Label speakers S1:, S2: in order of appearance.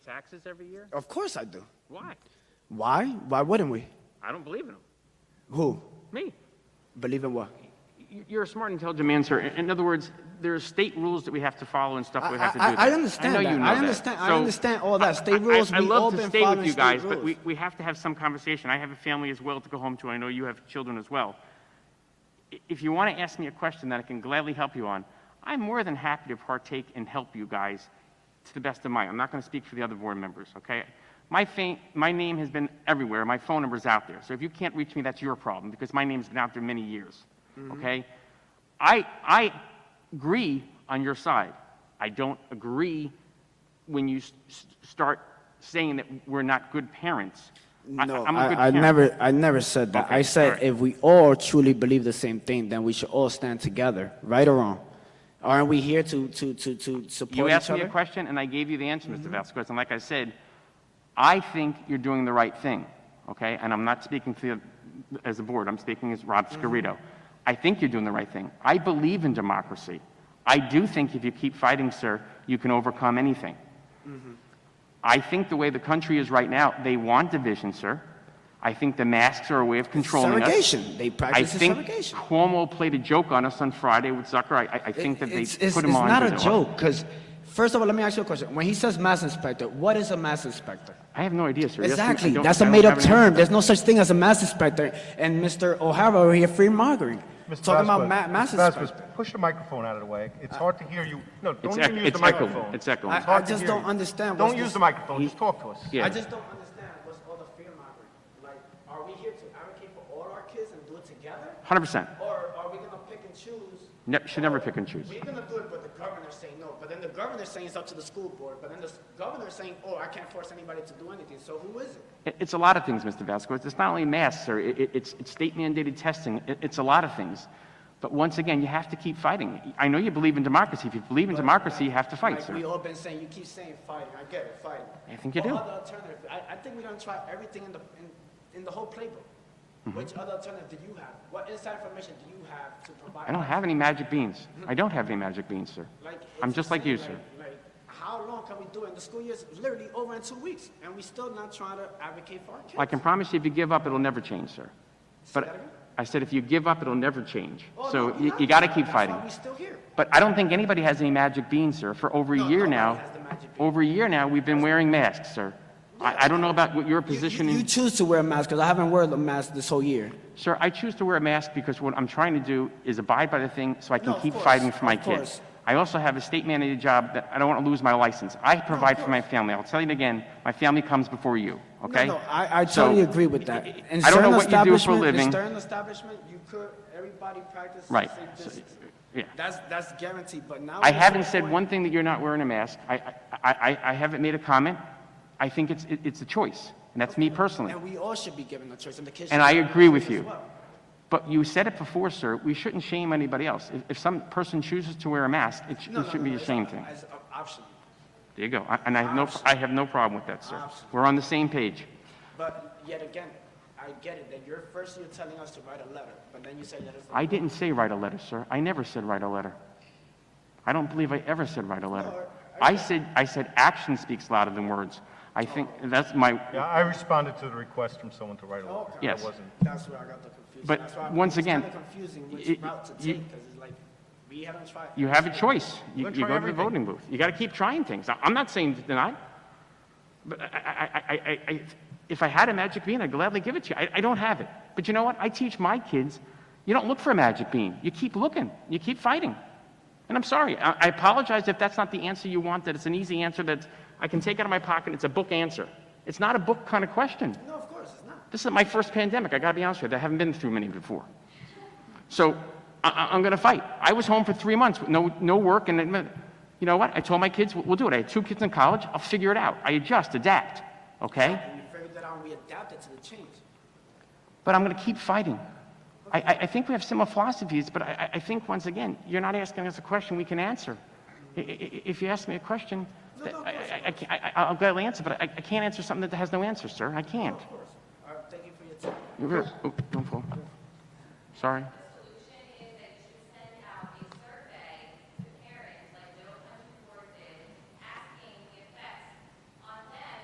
S1: taxes every year?
S2: Of course I do.
S1: Why?
S2: Why? Why wouldn't we?
S1: I don't believe in them.
S2: Who?
S1: Me.
S2: Believe in what?
S1: Y- You're a smart, intelligent man, sir. In in other words, there are state rules that we have to follow and stuff
S2: I,
S1: we have to do.
S2: I- I
S1: there.
S2: understand
S1: I know
S2: that.
S1: you know
S2: I
S1: that.
S2: understand. I
S1: So,
S2: understand all that. State
S1: I-
S2: rules.
S1: I, I
S2: we all
S1: love to
S2: been
S1: stay with
S2: following
S1: you
S2: state
S1: guys, but we,
S2: rules.
S1: we have to have some conversation. I have a family as well to go home to. I know you have children as well. I- If you want to ask me a question that I can gladly help you on, I'm more than happy to partake and help you guys to the best of my. I'm not going to speak for the other board members, okay? My, fa- my name has been everywhere. My phone number's out there. So if you can't reach me, that's your problem because my name's been out there many years,
S2: Mm-hmm.
S1: okay? I, I agree on your side. I don't agree when you s- s- start saying that we're not good parents. I-
S2: No,
S1: I'm a good
S2: I, I
S1: parent.
S2: never, I never said that.
S1: Okay,
S2: I said
S1: alright.
S2: if we all truly believe the same thing, then we should all stand together, right or wrong. Aren't we here to to to to support
S1: You
S2: each
S1: asked me
S2: other? Mm-hmm.
S1: a question, and I gave you the answer, Mr. Vasquez. And like I said, I think you're doing the right thing, okay? And I'm not speaking to you as a board, I'm speaking as Rob
S2: Mm-hmm.
S1: Scarito. I think you're doing the right thing. I believe in democracy. I do think if you keep fighting, sir, you can overcome anything.
S2: Mm-hmm.
S1: I think the way the country is right now, they want division, sir. I think the masks are a way of controlling us.
S2: Segregation. They practice
S1: I think
S2: segregation.
S1: Cuomo played a joke on us on Friday with Zucker. I- I, I think that they
S2: it's, it's,
S1: put him
S2: it's
S1: on.
S2: not
S1: to
S2: a
S1: the-
S2: joke because first of all let me ask you a question when he says mass inspector what is a mass inspector
S1: I have no idea, sir. Yes, I
S2: exactly
S1: don't-
S2: that's
S1: I
S2: a
S1: don't have
S2: made-up
S1: an answer.
S2: term there's no such thing as a mass inspector and mr o'hara over here free mongering
S3: Mr.
S2: talking about
S3: Vasquez,
S2: ma- mass
S3: Mr. Vasquez,
S2: inspector
S3: Push the microphone out of the way. It's hard to hear you. No, don't
S1: Uh, It's
S3: even
S1: ec-
S3: use the
S1: it's echoing.
S3: microphone.
S1: It's echoing.
S3: It's
S2: I-
S3: hard
S2: I
S3: to
S2: just
S3: hear
S2: don't
S3: you.
S2: understand what's
S3: Don't use
S2: this-
S3: the microphone, just talk to us.
S1: Yeah.
S2: i just don't understand what's all the fear mongering like are we here to advocate for all our kids and do it together
S1: Hundred percent.
S2: or are we going to pick and choose
S1: Ne- should never pick and choose.
S2: We're gonna do it, but the governor's saying no. But then the governor's saying it's up to the school board. But then the s- governor's saying, oh, I can't force anybody to do anything. So who is it?
S1: It- It's a lot of things, Mr. Vasquez. It's not only masks, sir. It- it- It's, it's state mandated testing. It- It's a lot of things. But once again, you have to keep fighting. I know you believe in democracy. If you believe in democracy, you have to fight,
S2: Like we
S1: sir.
S2: all been saying, you keep saying fighting. I get it, fighting.
S1: I think you
S2: What
S1: do.
S2: other alternative? I, I think we're gonna try everything in the in, in the whole playbook.
S1: Mm-hmm.
S2: Which other alternative do you have? What inside information do you have to provide?
S1: I don't
S2: us?
S1: have any magic beans. I don't have any magic beans, sir.
S2: Like, it's
S1: I'm just like you,
S2: insane,
S1: sir.
S2: Like, like, how long can we do it? The school year's literally over in two weeks, and we still not trying to advocate for our kids.
S1: I can promise you, if you give up, it'll never change, sir.
S2: that
S1: But
S2: again?
S1: I said, if you give up, it'll never change.
S2: Oh,
S1: So
S2: no,
S1: you,
S2: not
S1: you gotta
S2: giving
S1: keep
S2: up. That's
S1: fighting.
S2: why we still here.
S1: But I don't think anybody has any magic beans, sir. For over a
S2: No,
S1: year
S2: nobody
S1: now,
S2: has the magic bean.
S1: over a year now, we've been wearing masks, sir. I, I don't know about what your
S2: You- you-
S1: position
S2: You
S1: is.
S2: choose to wear a mask, because I haven't worn a mask this whole year.
S1: Sir, I choose to wear a mask because what I'm trying to do is abide by the thing so I
S2: No,
S1: can
S2: of
S1: keep
S2: course,
S1: fighting for my
S2: of
S1: kids.
S2: course.
S1: I also have a state mandated job that I don't want to lose my license. I provide for my family. I'll tell you again, my family comes before you, okay?
S2: No, no, I, I
S1: So,
S2: totally agree with that. In
S1: I don't know
S2: certain
S1: what you do for a
S2: establishment-
S1: living.
S2: In certain establishment, you could, everybody practice
S1: Right.
S2: safe
S1: So,
S2: distance.
S1: yeah.
S2: That's, that's guaranteed, but now.
S1: I
S2: it's
S1: haven't
S2: to the
S1: said
S2: point-
S1: one thing that you're not wearing a mask. I, I, I, I haven't made a comment. I think it's, it- it's a choice, and that's me personally.
S2: And we all should be given a choice, and the kids.
S1: And
S2: should
S1: I
S2: be given a
S1: agree with
S2: choice as
S1: you.
S2: well.
S1: But you said it before, sir, we shouldn't shame anybody else. If, if some person chooses to wear a mask, it, sh-
S2: No,
S1: it
S2: no,
S1: shouldn't
S2: no,
S1: be a
S2: it's
S1: shame
S2: op-
S1: thing.
S2: As an option.
S1: There you go. I- And I have no, I have no problem with that, sir. We're on the same page.
S2: But yet again, I get it, that you're first, you're telling us to write a letter, but then you say that it's.
S1: I didn't say write a letter, sir. I never said write a letter. I don't believe I ever said write a letter. I said, I said action speaks louder than words. I think that's my,
S3: Yeah, I responded to the request from someone to write a letter.
S2: Okay.
S1: Yes.
S3: That wasn't.
S2: That's where I got the confusion.
S1: But
S2: That's why
S1: once again,
S2: It's kind of confusing
S1: y-
S2: which route to
S1: you-
S2: take, because it's like, we haven't tried.
S1: You have a choice. You,
S3: We're gonna
S1: you
S3: try
S1: go to the
S3: everything.
S1: voting booth. You got to keep trying things. I, am not saying to deny, but I, I, I, I, I, if I had a magic bean, I'd gladly give it to you. I, I don't have it. But you know what? I teach my kids you don't look for a magic bean. You keep looking, you keep fighting. And I'm sorry. I, I apologize if that's not the answer you want, that it's an easy answer that I can take out of my pocket. It's a book answer. It's not a book kind of question.
S2: No, of course, it's not.
S1: This is my first pandemic. I got to be honest with you. I haven't been through many before. So I- I, I'm going to fight. I was home for three months with no, no work. And then, you know what? I told my kids, we'll, we'll do it. I had two kids in college. I'll figure it out. I adjust, adapt. Okay?
S2: And we figured that out, and we adapted to the change.
S1: But I'm going to keep fighting. I, I, I think we have similar philosophies, but I, I- I think, once again, you're not asking us a question we can answer. I- I- I- If you ask me a question, I, I, I, can't- I, I'll gladly answer, but I, I can't answer something that has no answer, sir. I can't.
S2: Of course. All right, thank you for your time.
S1: You're very- oh, don't fall. Sorry.